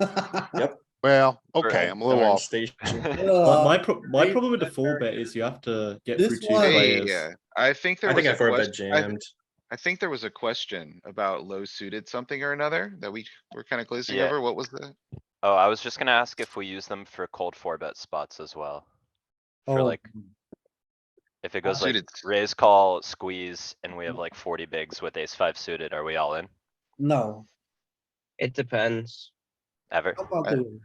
Well, Or okay, at I'm a little Iron off. Station. But Uh, my pro- my great problem with the four player. bet is you have to get This through two one- Hey, Hey, players. yeah, I think there I was think I a four bet question, I, jammed. I think there was a question about low suited something or another that we were kinda glazing Yeah. over. What was the? Oh, I was just gonna ask if we use them for cold four bet spots as well. For Oh, like, if it goes like Suited. Mm-hmm. raise, call, squeeze, and we have like forty bigs with ace five suited, are we all in? No. It depends. Ever? How about I- the-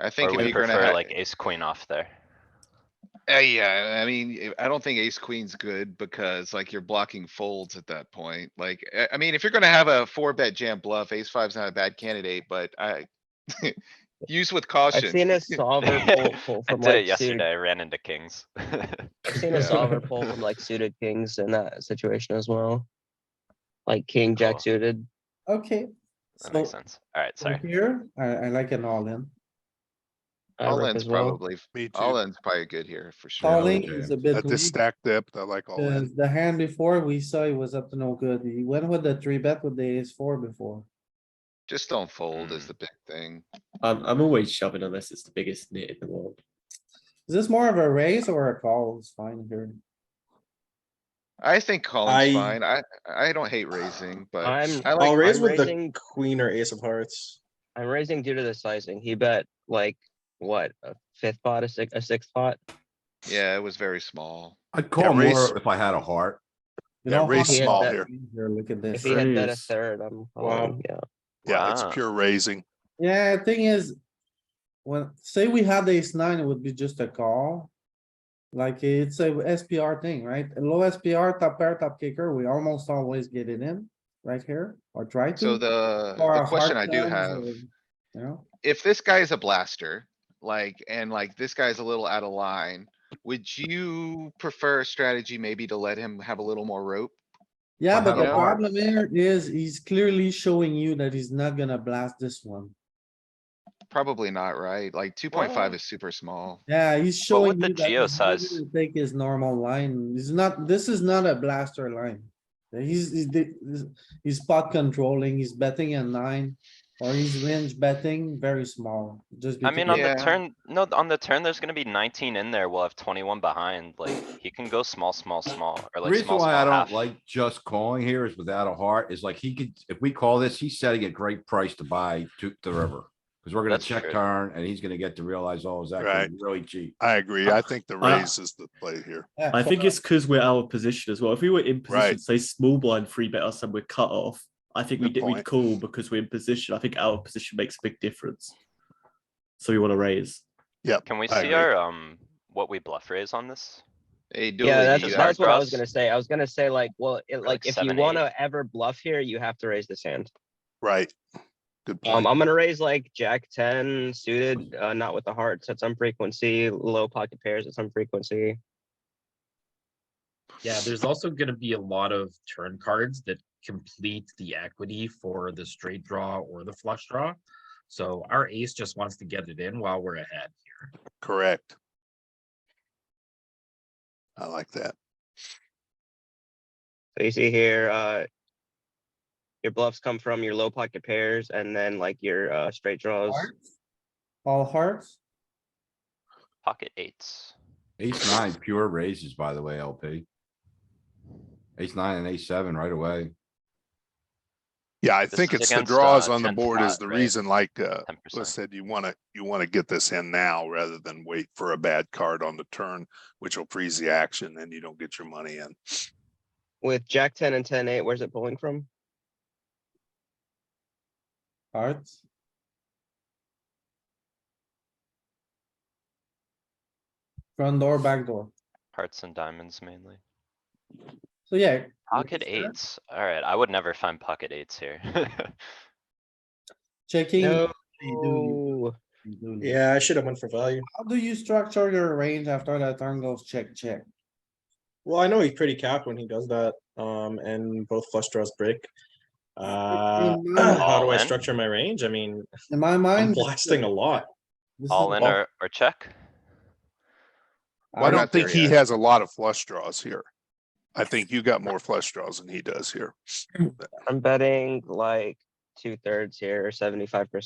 I Or think if we you're gonna, prefer ha- like ace queen off there? Uh, yeah, I mean, if- I don't think ace queen's good because like you're blocking folds at that point. Like, eh, I, I mean, if you're gonna have a four bet jam bluff, ace five's not a bad candidate, but I. Use with I've caution. seen a solver pull, pull I from did it like suited, yesterday, I ran into kings. I've seen a solver pull from like suited kings in that situation as well. Like king, Cool. jack suited. Okay. That makes So sense. Alright, from sorry. here, I, I like an all in. I All rip in's as well. probably, Me all too. in's probably good here for sure. All in is a bit At this weak. stack depth, I like all in. Cause the hand before we saw it was up to no good. He went with the three bet with the ace four before. Just don't fold is Mm. the big thing. I'm I'm always shoving unless it's the biggest knit in the world. Is this more of a raise or a call? It's fine here. I think I- calling's fine. I, I don't hate raising, but I'm- I I'll like, raise I'm with the raising- queen or ace of hearts. I'm raising due to the sizing. He bet like, what, a fifth pot, a six, a sixth pot? yeah, it was very small. I'd call raise- more if I had a heart. You Yeah, don't raise want to small bet here. Here, look at If this. he had bet a Raise. third, I'm, Wow. calling, yeah. Yeah, it's Wow. pure raising. Yeah, thing is, when, say we had ace nine, it would be just a call. Like it's a SPR thing, right? A Low SPR, top pair, top kicker, we almost always get it in right here or try to. So the, Or the a question I hard do times have. or, You know, if this guy is a blaster, like, and like this guy's a little out of line, would you prefer a strategy maybe to let him have a little more rope? yeah, but had the a heart. problem here is he's clearly showing you that he's not gonna blast this one. Probably not, right? Like two point five is super small. Yeah, he's showing with the you that geo he's not size? gonna Take his normal line. He's not, this is not a blaster line. He's, he's, the- he's- he's spot controlling, he's betting a nine, or he's range betting very small, just. I mean, on because- the Yeah. turn, no, on the turn, there's gonna be nineteen in there, we'll have twenty-one behind, like, he can go small, small, small, or like Reason small, small why I half. don't like just calling here is without a heart is like he could, if we call this, he's setting a great price to buy to the river. Cause we're gonna Hmm. That's check true. turn and he's gonna get to realize, oh, is that Right. really cheap? I agree. I think the Uh, raise is the play here. Yeah, I think it's because we're out of position as well. If we were in position, Right. say small blind three bet us and we're cut off, I think we Good did we point. call because we're in position. I think our position makes a big difference. So we want to raise. Can we I see agree. our, um, what we bluff raise on this? Hey, Dooley, Yeah, you that's, got that's what I was cross? gonna say. I was gonna say like, well, it like like, if you seven, wanna ever bluff here, you have to raise this hand. Right. Good Um, point. I'm gonna raise like jack ten suited, uh, not with the hearts at some frequency, low pocket pairs at some frequency. Yeah, there's also gonna be a lot of turn cards that complete the equity for the straight draw or the flush draw. So our ace just wants to get it in while we're ahead. Correct. I like that. So you see here, uh. Your bluffs come from your low pocket pairs and then like your, uh, straight draws. hearts. All hearts, Pocket eights. Ace nine pure raises, by the way, LP. Ace nine and ace seven right away. Yeah, I This think is it's the against, draws uh, on the 10th board is pot, the right? reason like, uh, Ten Liz percent. said you wanna, you wanna get this in now rather than wait for a bad card on the turn, which will freeze the action and you don't get your money in. With jack ten and ten eight, where's it pulling from? hearts. Front door, back door. Hearts and diamonds mainly. So yeah. Pocket sure. eights, alright, I would never find pocket eights here. Checking. No. you do, you do. Yeah, I should have went for value. How do you structure your range after that turn goes check, check? Well, I know he's pretty capped when he does that, um, and both flush draws break. Uh, Mm, how do all I in? structure my range? I mean, In my I'm mind. blasting a lot. this is All in all- or, or check? Well, I I'm don't not there think he yet. has a lot of flush draws here. I think you got more flush draws than he does here. I'm betting like two thirds here, seventy-five percent.